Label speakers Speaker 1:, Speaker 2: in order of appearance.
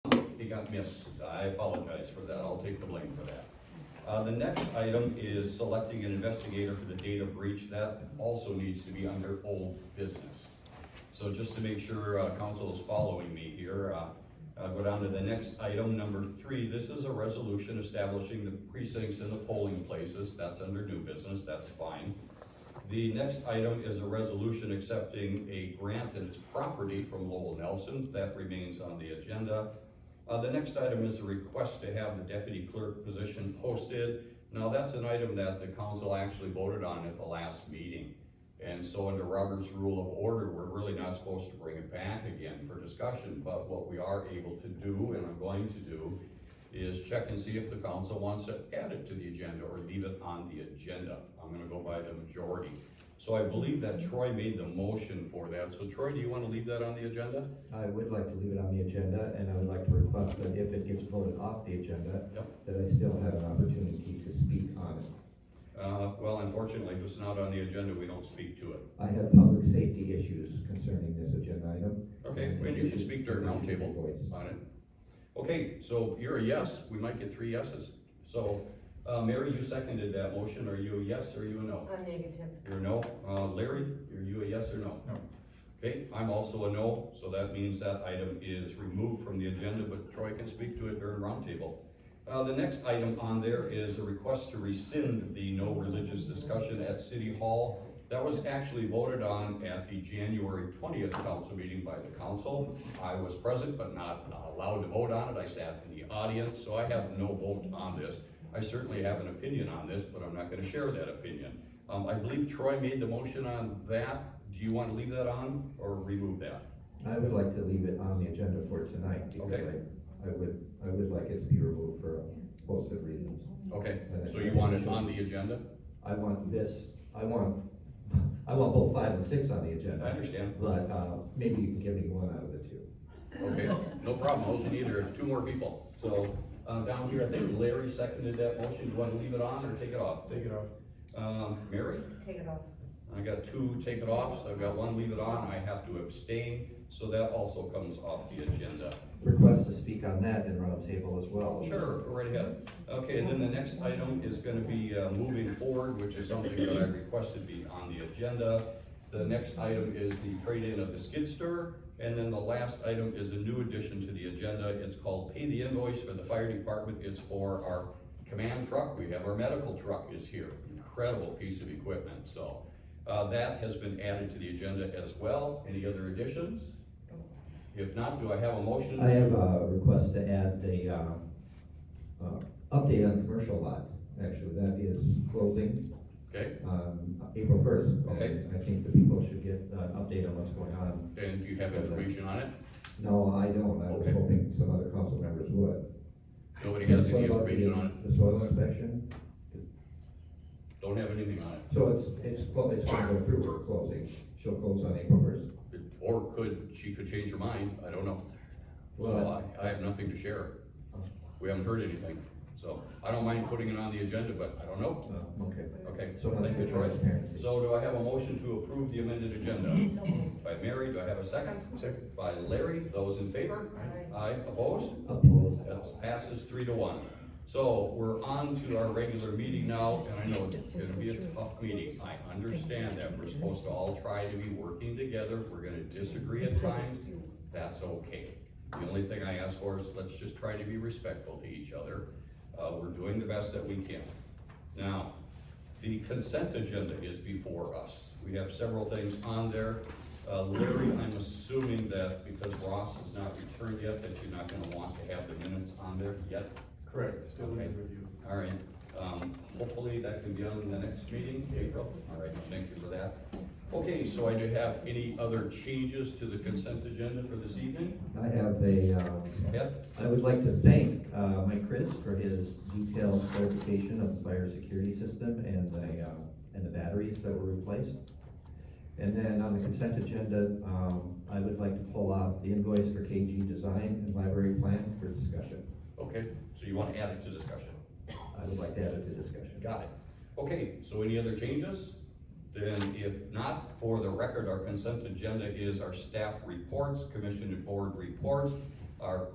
Speaker 1: got missed. I apologize for that. I'll take the blame for that. Uh, the next item is selecting an investigator for the data breach. That also needs to be under old business. So just to make sure, uh, council is following me here, uh, I'll go down to the next item, number three. This is a resolution establishing the precincts and the polling places. That's under new business. That's fine. The next item is a resolution accepting a grant and its property from Lowell Nelson. That remains on the agenda. Uh, the next item is a request to have the deputy clerk position posted. Now, that's an item that the council actually voted on at the last meeting. And so under Robert's rule of order, we're really not supposed to bring it back again for discussion, but what we are able to do, and I'm going to do, is check and see if the council wants to add it to the agenda or leave it on the agenda. I'm gonna go by the majority. So I believe that Troy made the motion for that. So Troy, do you wanna leave that on the agenda?
Speaker 2: I would like to leave it on the agenda, and I would like to request that if it gets voted off the agenda,
Speaker 1: Yep.
Speaker 2: that I still have an opportunity to speak on it.
Speaker 1: Uh, well, unfortunately, if it's not on the agenda, we don't speak to it.
Speaker 2: I have public safety issues concerning this agenda item.
Speaker 1: Okay, and you can speak during roundtable
Speaker 2: Voice.
Speaker 1: on it. Okay, so you're a yes, we might get three yeses. So, uh, Mary, you seconded that motion, are you a yes or are you a no?
Speaker 3: I'm negative.
Speaker 1: You're a no. Uh, Larry, are you a yes or no?
Speaker 4: No.
Speaker 1: Okay, I'm also a no, so that means that item is removed from the agenda, but Troy can speak to it during roundtable. Uh, the next item on there is a request to rescind the no religious discussion at City Hall. That was actually voted on at the January twentieth council meeting by the council. I was present but not allowed to vote on it. I sat in the audience, so I have no vote on this. I certainly have an opinion on this, but I'm not gonna share that opinion. Um, I believe Troy made the motion on that. Do you want to leave that on or remove that?
Speaker 2: I would like to leave it on the agenda for tonight, because
Speaker 1: Okay.
Speaker 2: I, I would, I would like it to be removed for a host of reasons.
Speaker 1: Okay, so you want it on the agenda?
Speaker 2: I want this, I want, I want both five and six on the
Speaker 1: I
Speaker 2: agenda,
Speaker 1: understand.
Speaker 2: but, uh, maybe you can give me one out of the two.
Speaker 1: Okay, no problem. Those are either, it's two more people. So, uh, down here, I think Larry seconded that motion. Do you want to leave it on or take it off?
Speaker 4: Take it off.
Speaker 1: Um, Mary?
Speaker 3: Take it off.
Speaker 1: I got two take it offs. I've got one leave it on. I have to abstain, so that also comes off the agenda.
Speaker 2: Request to speak on that in roundtable as well.
Speaker 1: Sure, go right ahead. Okay, and then the next item is gonna be uh, moving forward, which is something that I requested be on the agenda. The next item is the trade-in of the skid steer, and then the last item is a new addition to the agenda. It's called pay the invoice for the fire department. It's for our command truck. We have our medical truck is here. Incredible piece of equipment, so. uh, That has been added to the agenda as well. Any other additions? If not, do I have a motion?
Speaker 2: I have
Speaker 1: to-
Speaker 2: a request to add the, uh, uh, update on commercial lot, actually, that is closing,
Speaker 1: Okay,
Speaker 2: um, April first.
Speaker 1: Okay.
Speaker 2: I think the people should get an update on what's going on.
Speaker 1: and do you have information on it?
Speaker 2: No, I don't, I was
Speaker 1: Okay.
Speaker 2: hoping some other council members would.
Speaker 1: Nobody has
Speaker 2: What
Speaker 1: any
Speaker 2: about the-
Speaker 1: information on it,
Speaker 2: The soil inspection,
Speaker 1: don't have anything on it,
Speaker 2: so it's, it's, clo- it's gonna go through, we're closing, she'll close on April first.
Speaker 1: It- or could, she could change her mind, I don't know. So
Speaker 2: Well-
Speaker 1: I, I have nothing to share, we haven't heard anything, so I don't mind putting it on the agenda, but I don't know.
Speaker 2: Okay.
Speaker 1: Okay,
Speaker 2: So much
Speaker 1: thank you,
Speaker 2: for
Speaker 1: Troy.
Speaker 2: transparency.
Speaker 1: So do I have a motion to approve the amended agenda? By Mary, do I have a second? Second. By Larry, those in favor?
Speaker 3: Aye.
Speaker 1: Aye, opposed?
Speaker 2: Uphold.
Speaker 1: That passes three to one. So we're on to our regular meeting now, and I know it's gonna be a tough meeting. I understand that we're supposed to all try to be working together. We're gonna disagree at times. That's okay. The only thing I ask for is let's just try to be respectful to each other. Uh, we're doing the best that we can. Now, the consent agenda is before us. We have several things on there. Uh, Larry, I'm assuming that because Ross has not returned yet, that you're not gonna want to have the minutes on there yet.
Speaker 4: Correct, still
Speaker 1: Okay.
Speaker 4: in review.
Speaker 1: All right, um, hopefully that can be on the next meeting, April. All right, thank you for that. Okay, so I do have any other changes to the consent agenda for this evening?
Speaker 2: I have a, um,
Speaker 1: Yep,
Speaker 2: I would like to thank uh, Mike Chris for his detailed clarification of the fire security system and the, uh, and the batteries that were replaced. And then on the consent agenda, um, I would like to pull out the invoice for KG Design and Library Plan for discussion.
Speaker 1: okay, so you want to add it to discussion?
Speaker 2: I would like to add it to discussion.
Speaker 1: Got it. Okay, so any other changes? Then if not, for the record, our consent agenda is our staff reports, commission and board reports, our